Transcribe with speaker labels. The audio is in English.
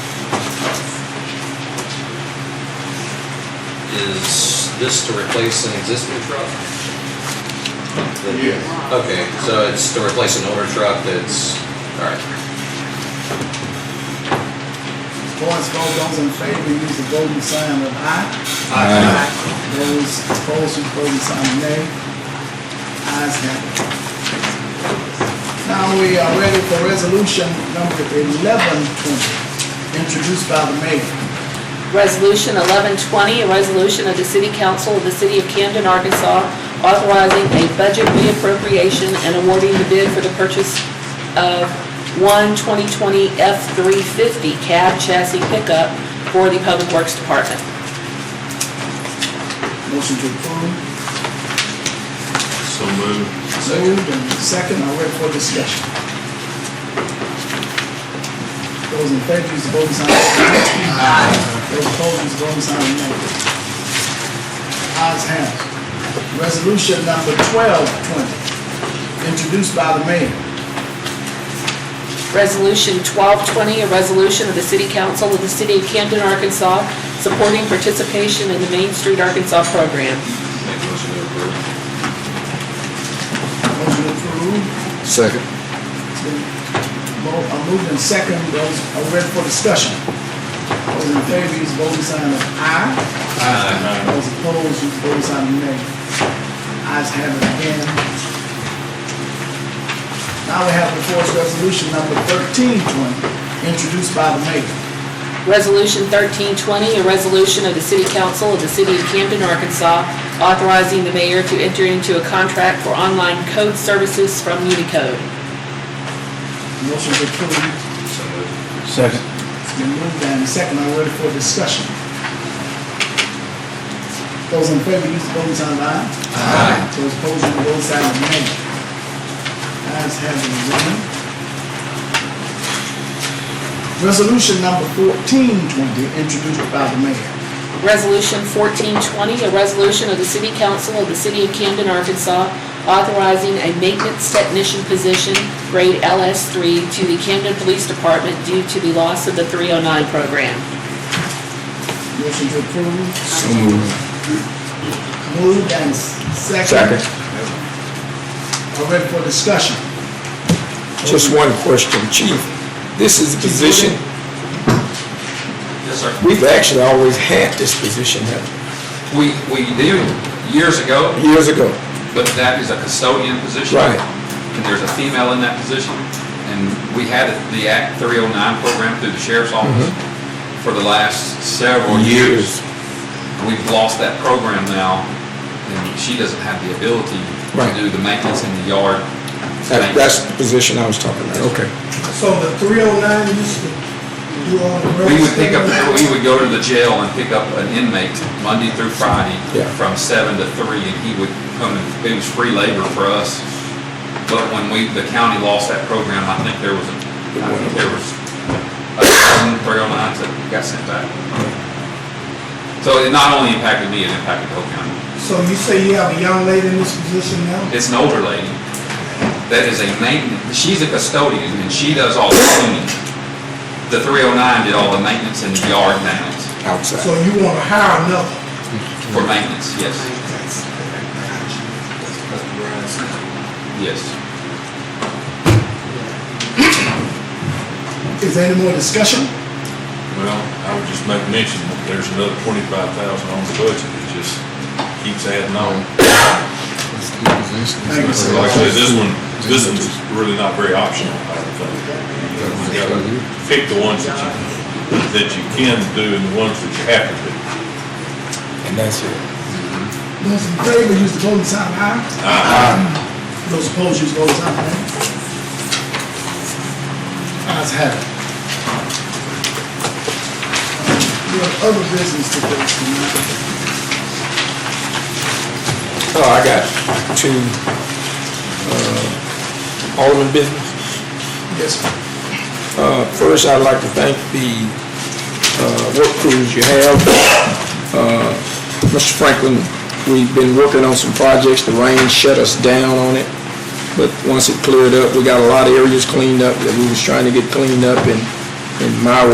Speaker 1: is this to replace an existing truck? The-
Speaker 2: Yes.
Speaker 1: Okay, so it's to replace an older truck that's, alright.
Speaker 3: Voice vote, those in favor use the golden sign of aye. Those opposed use golden sign of nay. Ayes have it. Now we are ready for resolution number eleven twenty, introduced by the mayor.
Speaker 4: Resolution 1120, a resolution of the City Council of the City of Camden, Arkansas, authorizing a budget reappropriation and awarding the bid for the purchase of one 2020 F-350 cab chassis pickup for the Public Works Department.
Speaker 3: Motion to approve.
Speaker 2: So moved.
Speaker 3: Moved and second, I'll wait for discussion. Those in favor, use the voting sign of aye. Those opposed, use the voting sign of nay. Ayes have. it. Resolution number twelve twenty, introduced by the mayor.
Speaker 4: Resolution 1220, a resolution of the City Council of the City of Camden, Arkansas, supporting participation in the Main Street Arkansas program.
Speaker 1: Make a motion to approve.
Speaker 3: Motion approved.
Speaker 5: Second.
Speaker 3: It's been mo- uh, Moved and second, those are ready for discussion. Those in favor, use the voting sign of aye.
Speaker 1: Aye.
Speaker 3: Those opposed, use the voting sign of nay. Ayes have it again. Now we have before us resolution number thirteen twenty, introduced by the mayor.
Speaker 4: Resolution 1320, a resolution of the City Council of the City of Camden, Arkansas, authorizing the mayor to enter into a contract for online code services from Unicode.
Speaker 3: Motion to approve.
Speaker 1: So moved.
Speaker 5: Second.
Speaker 3: It's been moved and second, are ready for discussion. Those in favor, use the voting sign of aye. Aye. Those opposed, use the voting sign of nay. Ayes have it, Your Honor. Resolution number fourteen twenty, introduced by the mayor.
Speaker 4: Resolution 1420, a resolution of the City Council of the City of Camden, Arkansas, authorizing a maintenance technician position, grade LS3, to the Camden Police Department due to the loss of the 309 program.
Speaker 3: Motion to approve.
Speaker 5: So moved.
Speaker 3: Moved and s- second.
Speaker 5: Second.
Speaker 3: Are ready for discussion.
Speaker 5: Just one question, Chief. This is the position,
Speaker 6: Yes, sir.
Speaker 5: we've actually always had this position haven't
Speaker 6: We, we did years ago,
Speaker 5: we? years ago.
Speaker 6: but that is a custodian position.
Speaker 5: Right.
Speaker 6: And there's a female in that position, and we had the Act 309 program through the sheriff's office
Speaker 5: Mm-hmm.
Speaker 6: for the last several years. And We've lost that program now, and she doesn't have the ability to
Speaker 5: Right.
Speaker 6: do the maintenance in the yard.
Speaker 5: That- That's the position I was talking about, okay.
Speaker 7: So the three oh nine used to, you on the.
Speaker 6: We would pick up, we would go to the jail and pick up an inmate Monday through Friday
Speaker 5: Yeah.
Speaker 6: from seven to three, and he would come, and it was free labor for us. But when we, the county lost that program, I think there was, a I think there was a thousand three oh nines that got sent back. So it not only impacted me, it impacted the whole county.
Speaker 7: So you say you have a young lady in this position now?
Speaker 6: It's an older lady that is a maintenance, she's a custodian, and she does all the cleaning. The three oh nine did all the maintenance in the yard now.
Speaker 7: So
Speaker 5: Outside.
Speaker 7: you want to hire another?
Speaker 6: For maintenance, yes, yes.
Speaker 3: Is there any more discussion?
Speaker 8: Well, I would just make mention that there's another twenty-five thousand on the budget, it just keeps adding on.
Speaker 3: Thank you, sir.
Speaker 8: Like I said, this one, this one's really not very optional, I don't think. You gotta pick the ones that you, that you can do and the ones that you have to do.
Speaker 5: And that's it.
Speaker 3: Those in favor, use the voting sign of aye. Those opposed, use voting sign of nay. Ayes have it. We have other business to do tonight.
Speaker 5: Oh, I got two, uh, Alderman business.
Speaker 3: Yes, sir.
Speaker 5: Uh, First, I'd like to thank the uh, work crews you have. Uh, Mr. Franklin, we've been working on some projects, the rain shut us down on it, but once it cleared up, we got a lot of areas cleaned up that we was trying to get cleaned up, and and my